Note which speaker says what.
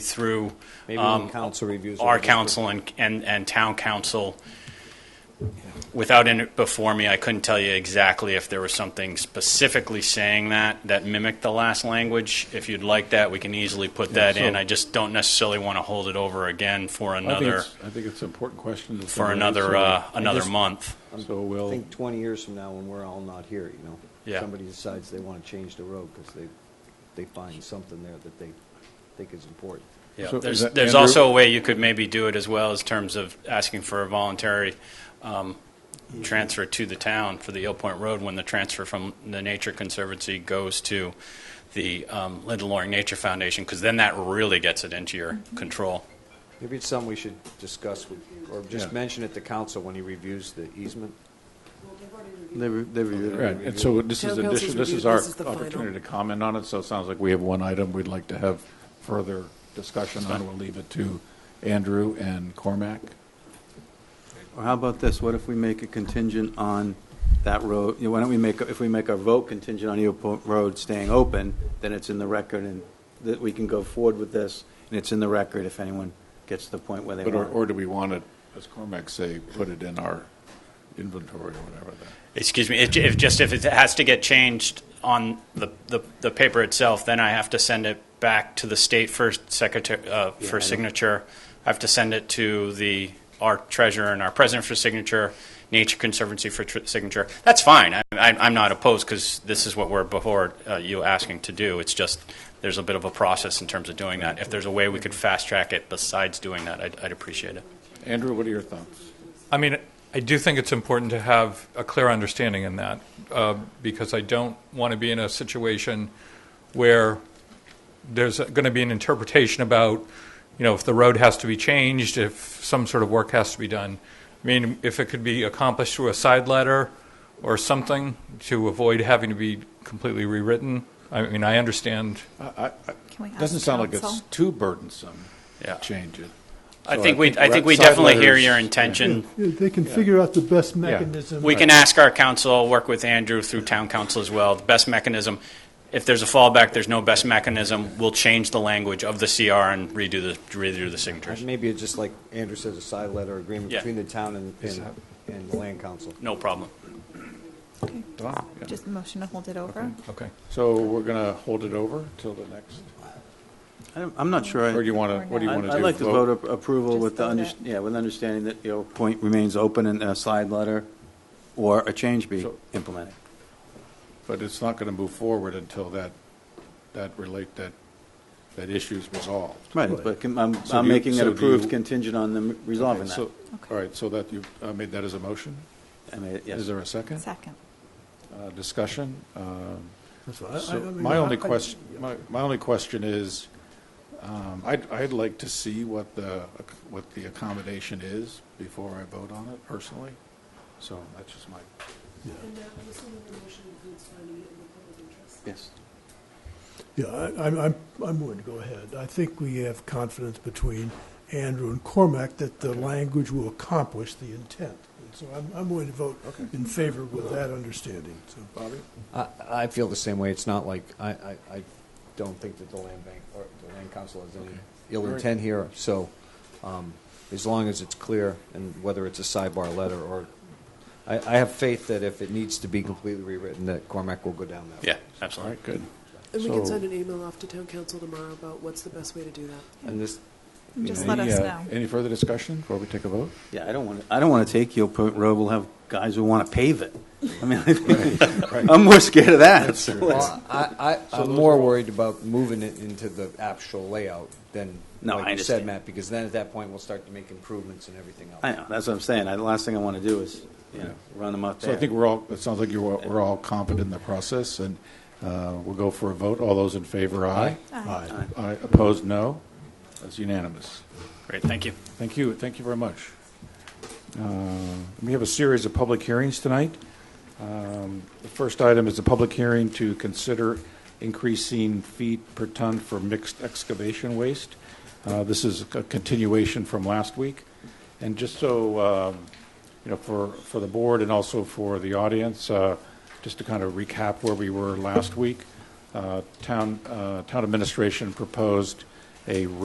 Speaker 1: through
Speaker 2: Maybe
Speaker 1: um,
Speaker 2: when council reviews. it,
Speaker 1: our
Speaker 2: we'll-
Speaker 1: council and, and, and town council. Without in it before me, I couldn't tell you exactly if there was something specifically saying that, that mimicked the last language. If you'd like that, we can easily put that in.
Speaker 3: so-
Speaker 1: I just don't necessarily want to hold it over again for
Speaker 3: I think
Speaker 1: another,
Speaker 3: it's- I think it's an important question. that's
Speaker 1: for
Speaker 3: been raised,
Speaker 1: another,
Speaker 3: so-
Speaker 1: uh, another
Speaker 3: just-
Speaker 1: month.
Speaker 3: So
Speaker 2: I
Speaker 3: we'll,
Speaker 2: think 20 years from now, when we're all not here, you know?
Speaker 1: Yeah.
Speaker 2: Somebody decides they want to change the road because they, they find something there that they think is important.
Speaker 1: Yeah,
Speaker 3: So is
Speaker 1: there's,
Speaker 3: that
Speaker 1: there's
Speaker 3: Andrew?
Speaker 1: also a way you could maybe do it as well as terms of asking for a voluntary um, transfer to the town for the Eel Point Road when the transfer from the Nature Conservancy goes to the um, Linda Loring Nature Foundation, because then that really gets it into your control.
Speaker 2: Maybe it's something we should discuss with, or just
Speaker 3: Yeah.
Speaker 2: mention it to council when he reviews the easement.
Speaker 4: They re- they reviewed it.
Speaker 3: right, and so this is
Speaker 5: Town Council's
Speaker 3: addition, this
Speaker 5: review,
Speaker 3: is our
Speaker 5: this is the final.
Speaker 3: opportunity to comment on it, so it sounds like we have one item we'd like to have further discussion on. We'll leave it to Andrew and Cormac.
Speaker 4: Or how about this, what if we make a contingent on that road, you know, why don't we make, if we make our vote contingent on Eagle Point Road staying open, then it's in the record, and that we can go forward with this, and it's in the record if anyone gets to the point where they
Speaker 3: But, or,
Speaker 4: want.
Speaker 3: or do we want it, as Cormac say, put it in our inventory or whatever that?
Speaker 1: Excuse me, if, if just if it has to get changed on the, the, the paper itself, then I have to send it back to the state for secretary, uh,
Speaker 4: Yeah, I
Speaker 1: for
Speaker 4: know.
Speaker 1: signature. I have to send it to the, our treasurer and our president for signature, Nature Conservancy for tr- signature. That's fine. I, I, I'm not opposed because this is what we're before uh, you asking to do. It's just there's a bit of a process in terms of doing that. If there's a way we could fast track it besides doing that, I'd, I'd appreciate it.
Speaker 3: Andrew, what are your thoughts?
Speaker 6: I mean, I do think it's important to have a clear understanding in that uh, because I don't want to be in a situation where there's going to be an interpretation about, you know, if the road has to be changed, if some sort of work has to be done. I mean, if it could be accomplished through a side letter or something to avoid having to be completely rewritten. I mean, I understand.
Speaker 5: Can we ask
Speaker 3: Doesn't sound like it's
Speaker 5: council?
Speaker 3: too burdensome
Speaker 1: Yeah.
Speaker 3: to change it.
Speaker 1: I
Speaker 3: So
Speaker 1: think we, I think we
Speaker 3: side
Speaker 1: definitely hear
Speaker 3: letters-
Speaker 1: your intention.
Speaker 7: Yeah, They can figure out the best mechanism.
Speaker 1: We can ask our council, work with Andrew through town council as well, the best mechanism. If there's a fallback, there's no best mechanism, we'll change the language of the CR and redo the, redo the signatures.
Speaker 2: Maybe it's just like Andrew says, a side letter agreement
Speaker 1: Yeah.
Speaker 2: between the town and, and- and the land council.
Speaker 1: No problem.
Speaker 3: Done, yeah.
Speaker 5: Just motion to hold it over.
Speaker 6: Okay.
Speaker 3: So we're going to hold it over till the next,
Speaker 4: I'm I'm not sure. I-
Speaker 3: or do you want to, what do you
Speaker 4: I'd-
Speaker 3: want to do?
Speaker 4: I'd like to vote ap- approval
Speaker 5: Just
Speaker 4: with the,
Speaker 5: vote
Speaker 4: under-
Speaker 5: it.
Speaker 4: yeah, with understanding that Eagle Point remains open and a slide letter or a change be
Speaker 3: So-
Speaker 4: implemented.
Speaker 3: But it's not going to move forward until that, that relate, that, that issue's resolved.
Speaker 4: Right, but can- I'm
Speaker 3: So
Speaker 4: I'm
Speaker 3: do you-
Speaker 4: making
Speaker 3: so
Speaker 4: it
Speaker 3: do
Speaker 4: approved
Speaker 3: you-
Speaker 4: contingent on them resolving that.
Speaker 3: So- All right, so that, you uh, made that as a motion?
Speaker 4: I mean, yes.
Speaker 3: Is there a second?
Speaker 5: Second.
Speaker 3: Uh, Discussion? Um,
Speaker 7: That's what I- I-
Speaker 3: So
Speaker 7: I mean,
Speaker 3: my only
Speaker 7: I- I-
Speaker 3: question, my, my only question is, um, I'd, I'd like to see what the, what the accommodation is before I vote on it personally. So that's just my,
Speaker 4: Yes.
Speaker 7: Yeah, I- I'm, I'm, I'm willing to go ahead. I think we have confidence between Andrew and Cormac that the language will accomplish the intent. And so I'm, I'm willing to vote in favor with that understanding, so. Bobby?
Speaker 2: I, I feel the same way. It's not like, I, I, I don't think that the land bank or the land council has any ill intent here. So, um, as long as it's clear and whether it's a sidebar letter or, I, I have faith that if it needs to be completely rewritten, that Cormac will go down that.
Speaker 1: Yeah,
Speaker 3: all
Speaker 1: absolutely.
Speaker 3: right, good.
Speaker 5: And we
Speaker 3: can
Speaker 5: send
Speaker 8: an email off to town council tomorrow about what's the best way to do that.
Speaker 2: And this,
Speaker 5: Just let
Speaker 3: Any,
Speaker 5: us
Speaker 3: uh,
Speaker 5: know.
Speaker 3: Any further discussion before we take a vote?
Speaker 4: Yeah, I don't want, I don't want to take Yale Point Road, we'll have guys who want to pave it. I mean, I think- I'm more scared of that. So let's-
Speaker 2: well, I, I, I'm more worried about moving it into the actual layout than,
Speaker 4: No,
Speaker 2: like
Speaker 4: I
Speaker 2: you said,
Speaker 4: understand.
Speaker 2: Matt, because then at that point, we'll start to make improvements and everything else.
Speaker 4: I know, that's what I'm saying, I- the last thing I want to do is, you know, run them up
Speaker 3: So
Speaker 4: there.
Speaker 3: I think we're all, it sounds like you're, all- we're all confident in the process, and uh, we'll go for a vote. All those in favor, aye.
Speaker 5: Aye.
Speaker 3: Aye. Opposed, no. That's unanimous.
Speaker 1: Great, thank you.
Speaker 3: Thank you, thank you very much. Uh, We have a series of public hearings tonight. Um, The first item is a public hearing to consider increasing feet per ton for mixed excavation waste. Uh, This is a continuation from last week. And just so, um, you know, for, for the board and also for the audience, uh, just to kind of recap where we were last week, uh, town, uh, town administration proposed a